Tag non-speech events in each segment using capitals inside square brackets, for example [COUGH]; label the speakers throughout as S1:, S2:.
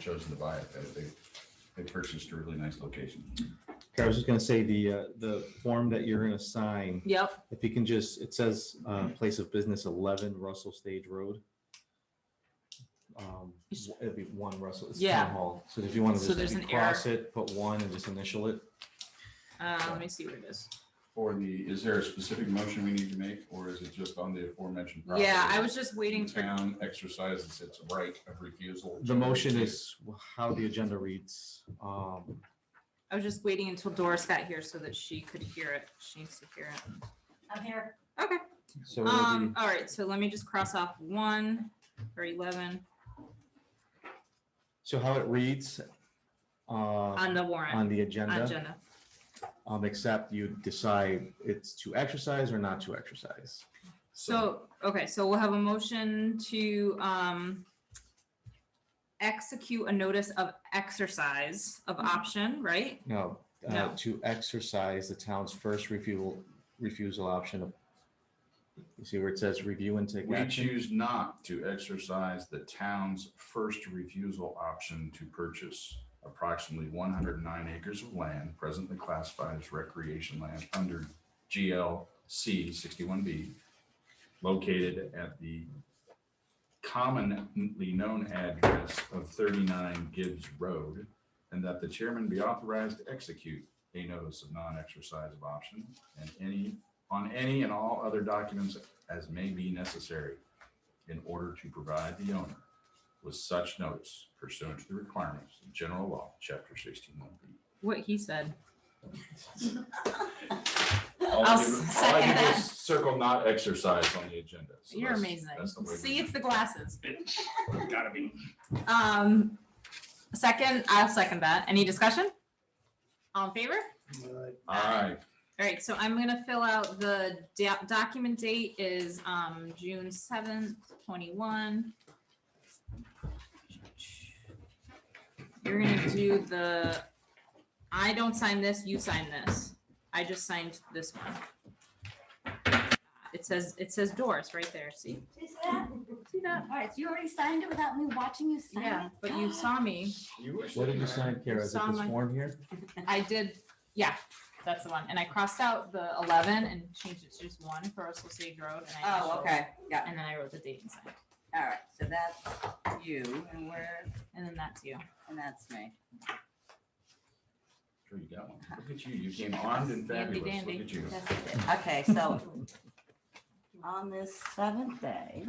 S1: chose to buy it, that they, they purchased a really nice location.
S2: I was just gonna say, the, uh, the form that you're gonna sign,
S3: Yep,
S2: if you can just, it says, uh, place of business eleven Russell Stage Road. Um, It'd be one Russell, it's
S3: Yeah.
S2: town hall, so if you want
S3: So
S2: to just
S3: there's
S2: maybe
S3: an error.
S2: cross it, put one and just initial it.
S3: uh, let me see what it is.
S1: For the, is there a specific motion we need to make, or is it just on the aforementioned? property?
S3: Yeah, I was just
S1: The
S3: waiting for,
S1: town exercises its right of refusal.
S2: The motion is how the agenda reads, um,
S3: I was just waiting until Doris got here so that she could hear it. She needs to hear it.
S4: I'm here.
S3: Okay,
S2: so. it'll be-
S3: um, all right, so let me just cross off one or eleven
S2: So how it reads uh,
S3: on
S2: on
S3: the warrant,
S2: the
S3: on
S2: agenda,
S3: agenda.
S2: um, except you decide it's to exercise or not to exercise.
S3: So, okay, so we'll have a motion to, um, execute a notice of exercise of option, right?
S2: No, uh,
S3: No.
S2: to exercise the town's first refusal, refusal option of, you see where it says review and take
S1: We
S2: action?
S1: choose not to exercise the town's first refusal option to purchase approximately one hundred and nine acres of land presently classified as recreation land under GLC sixty-one B located at the commonly known address of thirty-nine Gibbs Road, and that the chairman be authorized to execute a notice of non-exercise of option and any, on any and all other documents as may be necessary in order to provide the owner with such notice pursuant to the requirements of general law, chapter sixteen one B.
S3: What he said.
S1: All
S3: I'll
S1: I do-
S3: s-
S1: all I do
S3: second
S1: is Circle not exercise on the agenda. So
S3: You're
S1: that's-
S3: amazing.
S1: that's the way we-
S3: See, it's the glasses.
S1: Gotta be.
S3: Um, second, I'll second that. Any discussion? All in favor?
S1: Aye.
S3: All right, so I'm gonna fill out the da- document date is, um, June seventh, twenty-one. You're gonna do the, I don't sign this, you sign this. I just signed this one. It says, it says Doris right there, see?
S4: Is that?
S3: See that?
S4: All right, so you already signed it without me watching you sign it?
S3: Yeah, but you saw me.
S1: You wish
S2: What
S1: that
S2: did you sign, Kara? Is it
S3: Saw
S2: this
S3: my-
S2: form here?
S3: I did, yeah, that's the one. And I crossed out the eleven and changed it to just one for Russell Sage Road. and I
S5: Oh,
S3: initialed,
S5: okay, yeah,
S3: And then I wrote the date inside.
S5: all right, so that's you and where,
S3: And then that's you.
S5: and that's me.
S1: Sure you got one. Look at you. You came armed and
S3: Handy
S1: fabulous. Look
S3: dandy.
S1: at you.
S3: That's it.
S5: Okay, so on this seventh day,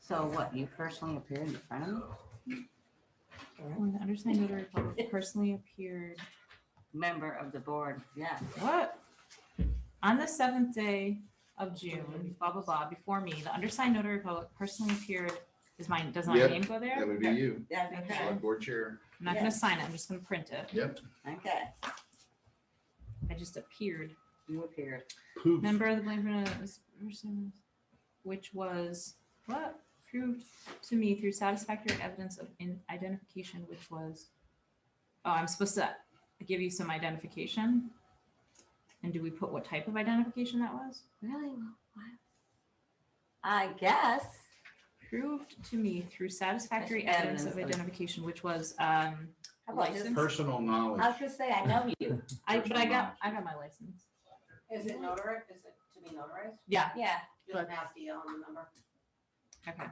S5: so what, you personally appeared in front of me?
S3: When the undersigned notary public personally appeared,
S5: Member of the board, yeah.
S3: what? On the seventh day of June, blah, blah, blah, before me, the undersigned notary public personally appeared, is mine, does my
S1: Yep.
S3: name go there? I'm
S1: would be you,
S5: that'd be
S3: Okay.
S5: good.
S1: board chair.
S3: not gonna sign it, I'm just gonna print it.
S1: Yep.
S5: Okay,
S3: I just appeared.
S5: you appeared.
S1: Poof.
S3: Member of the Blanford uh, is- person, which was what proved to me through satisfactory evidence of in identification, which was. Oh, I'm supposed to give you some identification. And do we put what type of identification that was?
S5: Really? What? I guess,
S3: Proved to me through satisfactory
S5: Evidence
S3: evidence of
S5: of-
S3: identification, which was um.
S5: how about just,
S3: License?
S1: Personal knowledge.
S5: I was gonna say, I know [LAUGHS] you,
S3: I but I got I got my license.
S6: Is it notary, is it to be notarized?
S3: Yeah,
S5: yeah.
S6: Just an ASCII on the number.
S3: okay.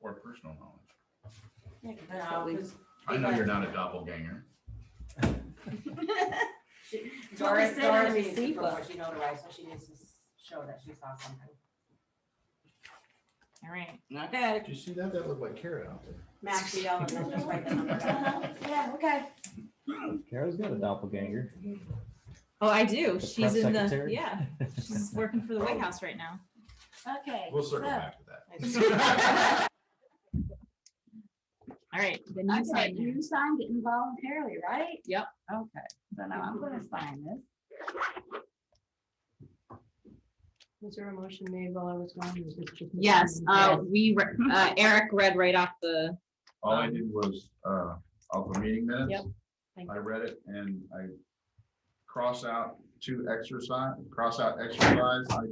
S1: Or personal knowledge.
S5: Yeah, 'cause that's what we-
S1: I know you're not a doppelganger.
S6: Doris, Doris
S5: sent her
S6: needs to
S5: receipt
S6: prove what
S5: book.
S6: she notarized, so she needs to s- show that she saw something.
S3: All right. Oh,
S5: Okay.
S1: Did you see that? That looked like carrot out there.
S6: Max, you don't, know, just write the number down.
S5: Yeah, okay.
S2: Kara's got a doppelganger.
S3: Oh, I do. She's
S2: press
S3: in the,
S2: secretary? [LAUGHS]
S3: yeah, she's working for the White House right now.
S5: Okay.
S1: We'll circle
S5: so-
S1: back to that.
S2: Oh.
S3: [LAUGHS] All right, then you
S5: Okay,
S3: sign there.
S5: you signed it involuntarily, right?
S3: Yep.
S5: Okay, so now I'm gonna sign this.
S7: Was there a motion made while I was gone? or was this just me?
S3: Yes, uh, we, re- uh, Eric read right off the,
S1: [LAUGHS] All I did was, uh, off the meeting
S3: Yep.
S1: minutes.
S7: Thank
S1: I read it and I cross out to exercise, cross out exercise, I